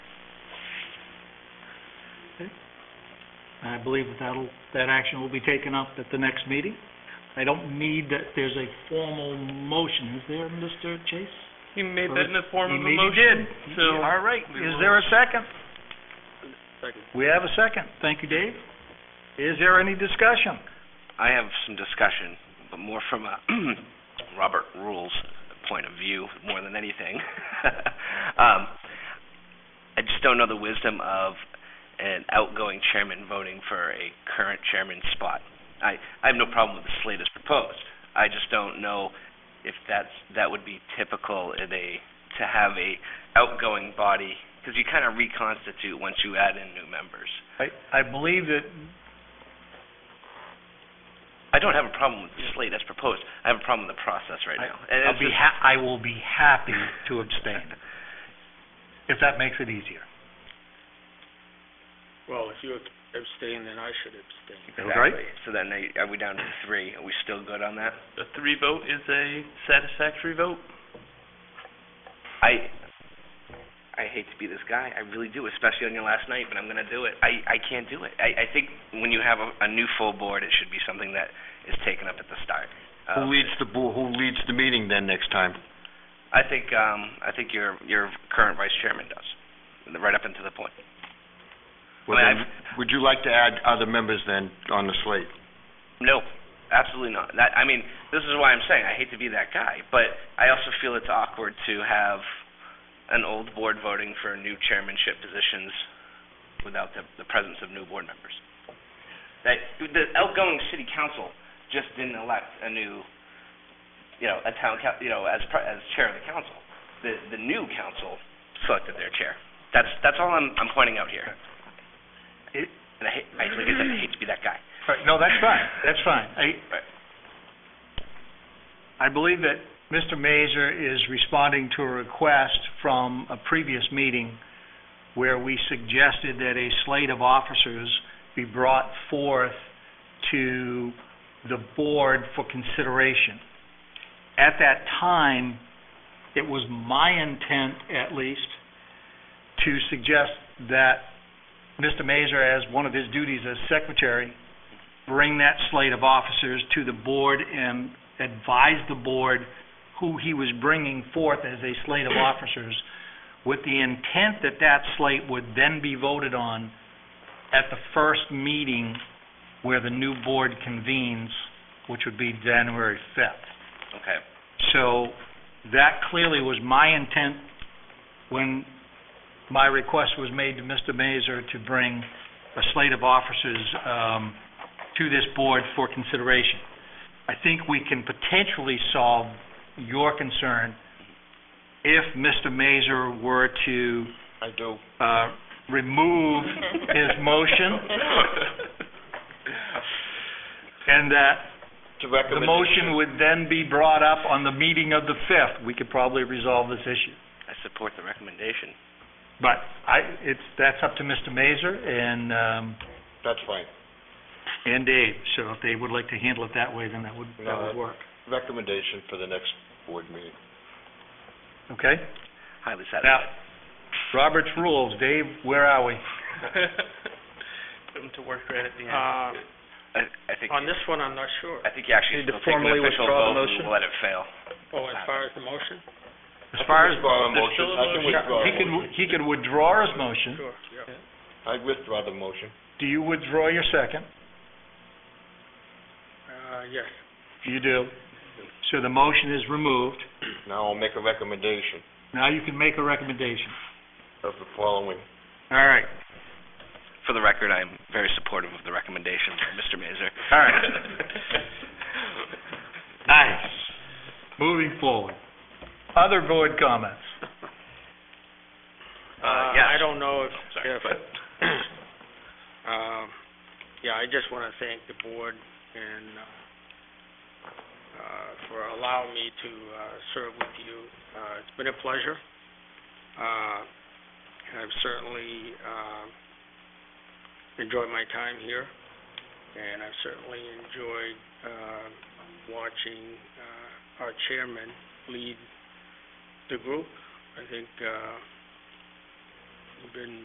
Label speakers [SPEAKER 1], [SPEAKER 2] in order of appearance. [SPEAKER 1] And I believe that that'll, that action will be taken up at the next meeting. I don't need that there's a formal motion, is there, Mr. Chase?
[SPEAKER 2] He made that in the form
[SPEAKER 1] He
[SPEAKER 2] of a
[SPEAKER 1] made- he
[SPEAKER 2] motion,
[SPEAKER 1] did.
[SPEAKER 2] so.
[SPEAKER 3] All right, is there a second? We have a second.
[SPEAKER 1] Thank you, Dave.
[SPEAKER 3] Is there any discussion?
[SPEAKER 4] I have some discussion, but more from a Robert Rules point of view more than anything. um, I just don't know the wisdom of an outgoing chairman voting for a current chairman's spot. I, I have no problem with the slate as proposed. I just don't know if that's that would be typical in a to have a outgoing body because you kind of reconstitute once you add in new members.
[SPEAKER 3] I, I believe that,
[SPEAKER 4] I don't have a problem with the slate as proposed. I have a problem with the process right
[SPEAKER 3] I-
[SPEAKER 4] now. And
[SPEAKER 3] I'll
[SPEAKER 4] it's
[SPEAKER 3] be
[SPEAKER 4] just-
[SPEAKER 3] ha- I will be happy to abstain, if that makes it easier.
[SPEAKER 5] Well, if you abstain, then I should abstain.
[SPEAKER 3] Right.
[SPEAKER 4] Exactly. So then they, are we down to three? Are we still good on that?
[SPEAKER 2] A three vote is a satisfactory vote.
[SPEAKER 4] I, I hate to be this guy, I really do, especially on your last night, but I'm gonna do it. I, I can't do it. I, I think when you have a, a new full board, it should be something that is taken up at the start.
[SPEAKER 6] Who
[SPEAKER 4] Um,
[SPEAKER 6] leads the, bo- who leads the meeting then next time?
[SPEAKER 4] I think, um, I think your, your current vice chairman does, right up until the point.
[SPEAKER 6] Well,
[SPEAKER 4] I mean,
[SPEAKER 6] then, Would you like to add other members then on the slate?
[SPEAKER 4] No, absolutely not. That I mean, this is why I'm saying I hate to be that guy, but I also feel it's awkward to have an old board voting for new chairmanship positions without the, the presence of new board members. That the outgoing city council just didn't elect a new, you know, a town coun- you know, as pre- as chair of the council. The the new council selected their chair. That's that's all I'm I'm pointing out here.
[SPEAKER 3] It-
[SPEAKER 4] and I hate, I, like I said, I hate to be that guy.
[SPEAKER 3] Right, no, that's fine, that's fine. I, I believe that Mr. Mazer is responding to a request from a previous meeting where we suggested that a slate of officers be brought forth to the board for consideration.
[SPEAKER 1] At that time, it was my intent, at least,
[SPEAKER 3] to suggest that Mr. Mazer, as one of his duties as secretary, bring that slate of officers to the board and advise the board who he was bringing forth as a slate of officers, with the intent that that slate would then be voted on at the first meeting where the new board convenes, which would be January 5th.
[SPEAKER 4] Okay.
[SPEAKER 3] So that clearly was my intent when my request was made to Mr. Mazer to bring a slate of officers um, to this board for consideration. I think we can potentially solve your concern if Mr. Mazer were to
[SPEAKER 5] I do.
[SPEAKER 3] uh, remove his motion and that
[SPEAKER 5] To
[SPEAKER 3] the
[SPEAKER 5] recommend.
[SPEAKER 3] motion would then be brought up on the meeting of the 5th. We could probably resolve this issue.
[SPEAKER 4] I support the recommendation.
[SPEAKER 3] But I, it's, that's up to Mr. Mazer and, um,
[SPEAKER 5] That's fine.
[SPEAKER 3] and Dave, so if they would like to handle it that way, then that would, that
[SPEAKER 5] No,
[SPEAKER 3] would work,
[SPEAKER 5] Recommendation for the next board meeting.
[SPEAKER 3] okay?
[SPEAKER 4] Highly
[SPEAKER 3] Now,
[SPEAKER 4] satisfied.
[SPEAKER 3] Robert's rules, Dave, where are we?
[SPEAKER 2] Put him to work right at the end.
[SPEAKER 5] Uh,
[SPEAKER 4] I, I think,
[SPEAKER 5] on this one, I'm not sure.
[SPEAKER 4] I think you actually
[SPEAKER 3] Need to
[SPEAKER 4] still take an
[SPEAKER 3] formally
[SPEAKER 4] official
[SPEAKER 3] withdraw the
[SPEAKER 4] vote and
[SPEAKER 3] motion?
[SPEAKER 4] let it fail.
[SPEAKER 5] Oh, as far as the motion?
[SPEAKER 3] As far as,
[SPEAKER 5] Withdraw the
[SPEAKER 2] There's motion. still a
[SPEAKER 5] I can
[SPEAKER 2] motion.
[SPEAKER 5] withdraw
[SPEAKER 3] he
[SPEAKER 5] the motion.
[SPEAKER 3] could, he could withdraw his motion.
[SPEAKER 5] Sure, yeah. I withdraw the motion.
[SPEAKER 3] Do you withdraw your second?
[SPEAKER 5] Uh, yes.
[SPEAKER 3] You do. So the motion is removed.
[SPEAKER 5] Now I'll make a recommendation
[SPEAKER 3] Now you can make a recommendation.
[SPEAKER 5] of the following.
[SPEAKER 3] All right,
[SPEAKER 4] For the record, I'm very supportive of the recommendation from Mr. Mazur.
[SPEAKER 3] all right. Nice. Moving forward. Other board comments?
[SPEAKER 4] Uh,
[SPEAKER 5] Uh,
[SPEAKER 4] yes.
[SPEAKER 5] I don't know if, if, um, yeah, I just want to thank the board and, uh, uh, for allowing me to, uh, serve with you. Uh, it's been a pleasure. Uh, and I've certainly, um, enjoyed my time here, and I've certainly enjoyed, uh, watching, uh, our chairman lead the group. I think, uh, you've been